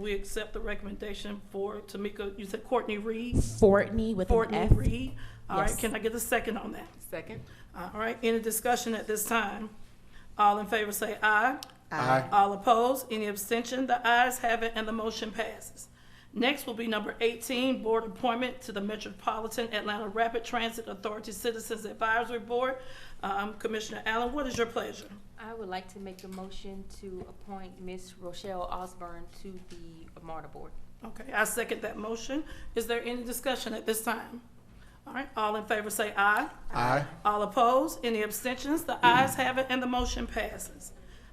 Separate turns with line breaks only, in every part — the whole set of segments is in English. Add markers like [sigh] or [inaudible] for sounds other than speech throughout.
We accept the recommendation for Tamika, you said Courtney Reed?
Fortney with
Courtney
an F.
Reed. All right,
Yes.
can I get a second on that?
Second.
All right, any discussion at this time? All in favor say aye.
Aye.
All opposed, any abstention? The ayes have it and the motion passes. Next will be number 18, board appointment to the Metropolitan Atlanta Rapid Transit Authority Citizens Advisory Board. Um, Commissioner Allen, what is your pleasure?
I would like to make a motion to appoint Miss Rochelle Osborne to the MARTA Board.
Okay, I second that motion. Is there any discussion at this time? All right, all in favor say aye.
Aye.
All opposed? Any abstentions? The ayes have it, and the motion passes.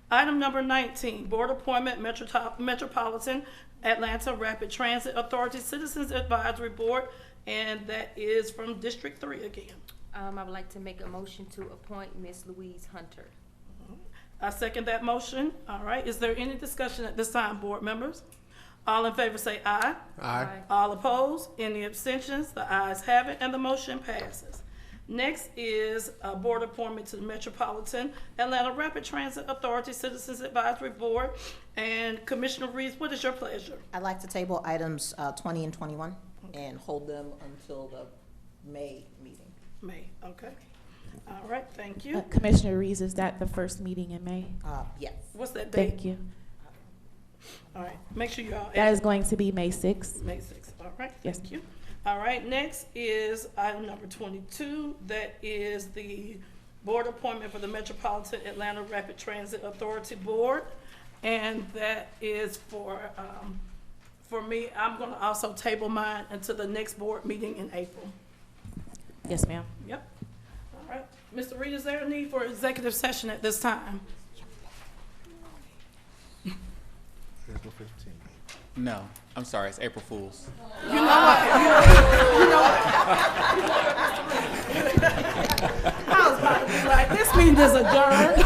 Item number 19, Board Appointment Metrotop- Metropolitan Atlanta Rapid Transit Authority Citizens Advisory Board, and that is from District 3 again.
Um, I would like to make a motion to appoint Miss Louise Hunter.
I second that motion. All right, is there any discussion at this time, board members? All in favor say aye.
Aye.
All opposed? Any abstentions? The ayes have it, and the motion passes. Next is a board appointment to the Metropolitan Atlanta Rapid Transit Authority Citizens Advisory Board. And Commissioner Reeves, what is your pleasure?
I'd like to table items uh, 20 and 21 and hold them until the May meeting.
May, okay. All right, thank you.
uh, Commissioner Reeves, is that the first meeting in May?
Uh, Yes.
What's that
Thank
date?
you.
All right, make sure y'all.
That is going to be May 6th.
May sixth, all right,
Yes.
thank you. All right, next is item number twenty-two, that is the board appointment for the Metropolitan Atlanta Rapid Transit Authority Board. And that is for, um, for me, I'm gonna also table mine until the next board meeting in April.
Yes, ma'am.
Yep. All right, Mr. Reed, is there a need for executive session at this time?
April fifteenth.
No, I'm sorry. It's April Fools.
I was about to be like, this meeting is adjourned.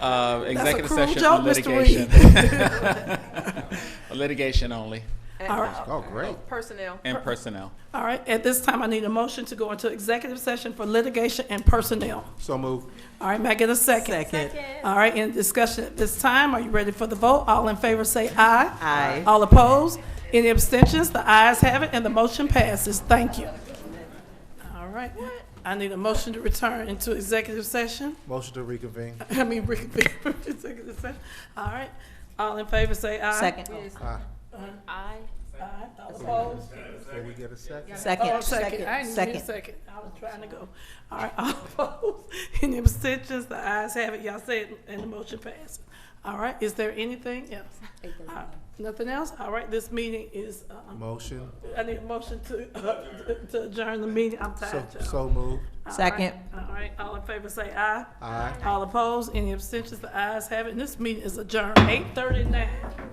Uh, executive
cruel
session
joke,
for
Mr.
litigation.
[laughs]
litigation [laughs] only
All right,
Oh, great.
and personnel.
all right, at this time, I need a motion to go into executive session for litigation and personnel.
So move.
All right, may I get a second? Second. All right, in discussion at this time, are you ready for the vote? All in favor say aye.
Aye.
All opposed? Any abstentions? The ayes have it, and the motion passes. Thank you. All right, I need a motion to return into executive session. [laughs]
Motion to reconvene.
I mean, reconvene from [laughs] executive session. All right, all in favor say aye.
Second,
Aye.
I,
Aye. All opposed?
Did we get a second?
Oh,
second,
second, I
second,
didn't hear
second.
second. I was trying to go. All right, all [laughs] opposed, any abstentions, the ayes have it, y'all said, and the motion passes. All right, is there anything else? All right, Nothing else? All right, this meeting is, um,
Motion.
I need a motion to, uh, to adjourn the meeting, I'm
So,
tired, y'all.
so moved.
Second.
All right, all in favor say aye.
Aye.
All opposed, any abstentions, the ayes have it, and this meeting is adjourned, eight thirty-nine.